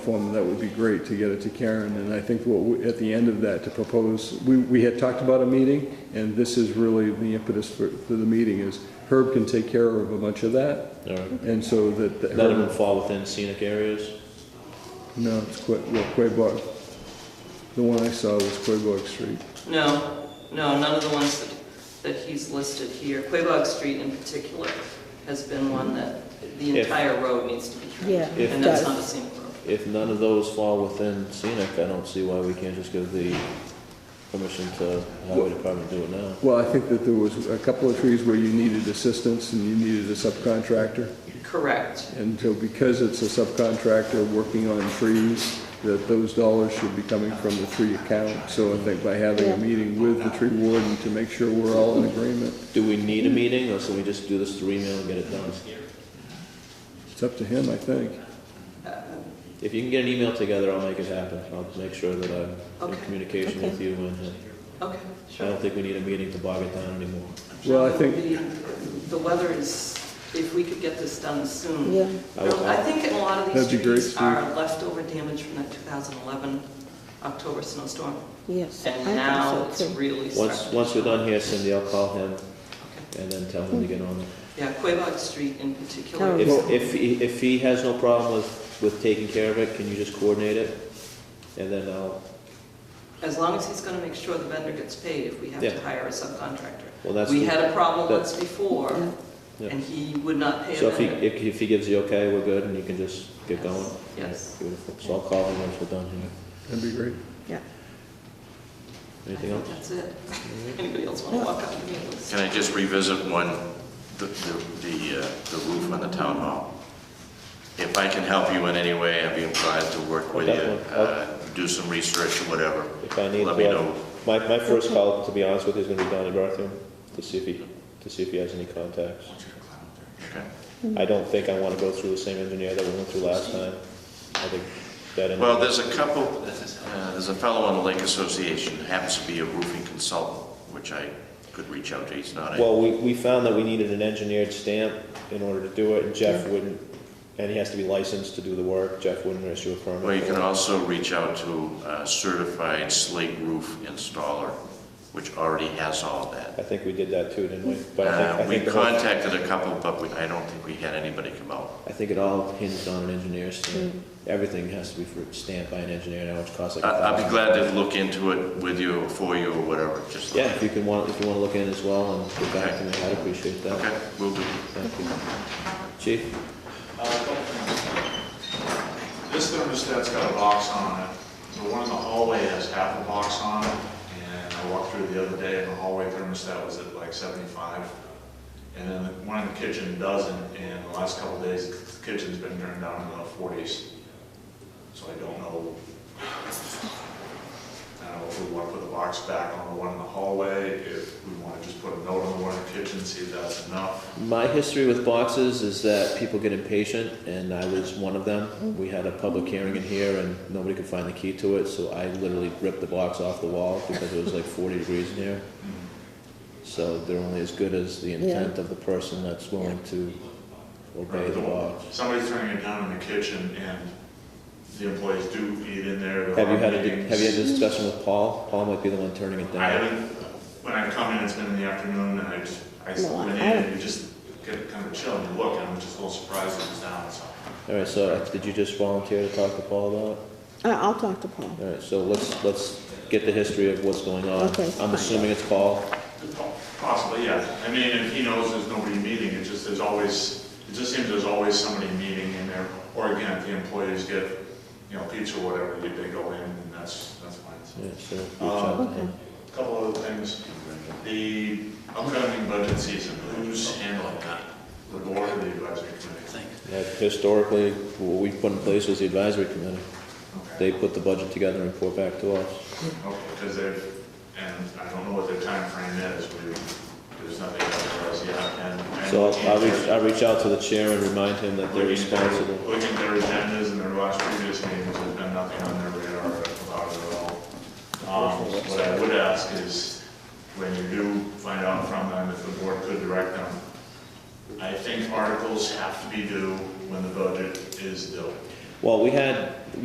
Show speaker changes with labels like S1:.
S1: form, that would be great to get it to Karen, and I think what, we- at the end of that, to propose, we, we had talked about a meeting, and this is really the impetus for, for the meeting, is Herb can take care of a bunch of that,
S2: All right.
S1: and so that, that
S2: None of them
S1: Herb,
S2: fall within scenic areas?
S1: no, it's Que, well, Quabog. The one I saw was Quabog Street.
S3: No, no, none of the ones that, that he's listed here. Quabog Street in particular has been one that the
S2: If-
S3: entire road needs to be
S4: Yeah,
S3: trimmed.
S2: If-
S3: And that's not a scenic road.
S2: If none of those fall within scenic, I don't see why we can't just give the permission to highway department to do it now.
S1: Well, I think that there was a couple of trees where you needed assistance and you needed a subcontractor,
S3: Correct.
S1: and so because it's a subcontractor working on trees, that those dollars should be coming from the tree account, so I think by having a
S4: Yeah.
S1: meeting with the tree warden to make sure we're all in agreement,
S2: Do we need a meeting, or should we just do this through email and get it done?
S1: it's up to him, I think.
S2: If you can get an email together, I'll make it happen. I'll make sure that I'm in
S3: Okay.
S2: communication with
S4: Okay.
S2: you, and uh,
S3: Okay,
S2: I
S3: sure.
S2: don't think we need a meeting to bog it down anymore.
S1: Well, I
S3: No,
S1: think-
S3: the- The weather is, if we could get this done soon.
S4: Yeah.
S2: I will-
S3: I think a lot of these
S1: That'd be great,
S3: trees are leftover damage from that 2011 October snowstorm.
S4: Yes. I
S3: And
S4: think
S3: now
S4: so,
S3: it's
S4: too.
S3: really
S2: Once,
S3: starting.
S2: once we're done here, Cindy, I'll call him
S3: Okay.
S2: and then tell him to get on it.
S3: Yeah, Quabog Street in particular.
S4: Terrible.
S2: If, if, he- if he has no problem with, with taking care of it, can you just coordinate it? And then I'll,
S3: As long as he's gonna make sure the vendor gets paid if we have
S2: Yeah.
S3: to hire a subcontractor.
S2: well, that's.
S3: We
S2: the-
S3: had a problem
S2: that-
S3: once before,
S2: Yeah.
S3: and he would not pay
S2: So
S3: a
S2: if he,
S3: vendor.
S2: if if he gives the okay, we're good, and you can just get going?
S3: Yes.
S2: Beautiful, so I'll call him once we're done here.
S1: That'd be great.
S4: Yeah.
S2: Anything
S3: I
S2: else? Mm-hmm.
S3: think That's it. Anybody else wanna walk up to me? and listen?
S5: Can I just revisit one, the, the, the uh, the roof on the town hall? If I can help you in any way, I'd be glad to work with you,
S2: Definitely.
S5: uh, do some research or whatever.
S2: If I need to,
S5: Let me know.
S2: I- my, my first call, to be honest with you, is gonna be Donnie Bartham, to see if he, to see if he has any contacts.
S5: Okay.
S2: I don't think I wanna go through the same engineer that we went through last time. I think that.
S5: Well, there's a couple, uh, there's a fellow on the Lake Association, happens to be a roofing consultant, which I could reach out to, he's not a,
S2: Well, we, we found that we needed an engineered stamp in order to do it, and Jeff wouldn't, and he has to be licensed to do the work, Jeff wouldn't issue a permit.
S5: well, you can also reach out to a certified slate roof installer, which already has all of that.
S2: I think we did that too, didn't we? But I think-
S5: Uh,
S2: I
S5: We
S2: think, the whole-
S5: contacted a couple, but we, I don't think we had anybody come out.
S2: I think it all hinged on an engineer's stamp. Everything has to be for- stamped by an engineer now, which costs like a
S5: I- Uh, I'll
S2: thousand.
S5: be glad to look into it with you, for you, or whatever, just.
S2: Yeah, if you can want, if you wanna look in as well and get back to me, I'd appreciate that.
S5: Okay, we will do.
S2: Thank you. Chief?
S6: Uh, This thermostat's got a box on it. The one in the hallway has half a box on it, and I walked through the other day, and the hallway thermostat was at like 75. And then the one in the kitchen doesn't, and the last couple of days, the kitchen's been turned down to the 40s. So I don't know. I don't know if we want to put the box back on the one in the hallway, if we want to just put a note on the one in the kitchen, see if that's enough.
S2: My history with boxes is that people get impatient, and I was one of them. We had a public hearing in here, and nobody could find the key to it, so I literally ripped the box off the wall because it was like 40 degrees in here. So they're only as good as the intent of the person that's willing to obey the box.
S6: Somebody's turning it down in the kitchen and the employees do eat in there.
S2: Have you had a,
S6: meetings.
S2: have you had a discussion with Paul? Paul might be the one turning it
S6: I
S2: down.
S6: haven't, when I come in, it's been in the afternoon and I just, I
S4: No, I-
S6: went in
S4: I-
S6: and you just get kind of a chill and you look and I'm just a little surprised it was down, so.
S2: All right, so uh, did you just volunteer to talk to Paul about it?
S4: I- I'll talk to Paul.
S2: All right, so let's, let's get the history of what's going on.
S4: Okay,
S2: I'm
S4: fine.
S2: assuming it's Paul.
S6: Possibly, yeah. I mean, and he knows there's nobody meeting, it just, there's always, it just seems there's always somebody meeting in there. Or again, if the employees get, you know, pizza or whatever, they- they go in and that's, that's fine. so.
S2: Yeah, so reach out to him.
S6: Couple other things. The upcoming budget season, who's handling that? The board or the advisory committee?
S2: Yeah, Historically, what we put in place was the advisory committee. They put the budget together and report back to us.
S6: Because they've, and I don't know what their timeframe is, we, there's nothing out there as yet, and. and
S2: So I'll- I'll reach,
S6: looking at
S2: I'll reach out to the chair and remind him that they're
S6: their-
S2: responsible.
S6: Looking at their agendas and their last previous meetings, there's been nothing on their radar about it at all. Um, What I would ask is, when you do find out from them, if the board could direct them, I think articles have to be due when the budget is due.
S2: Well, we had,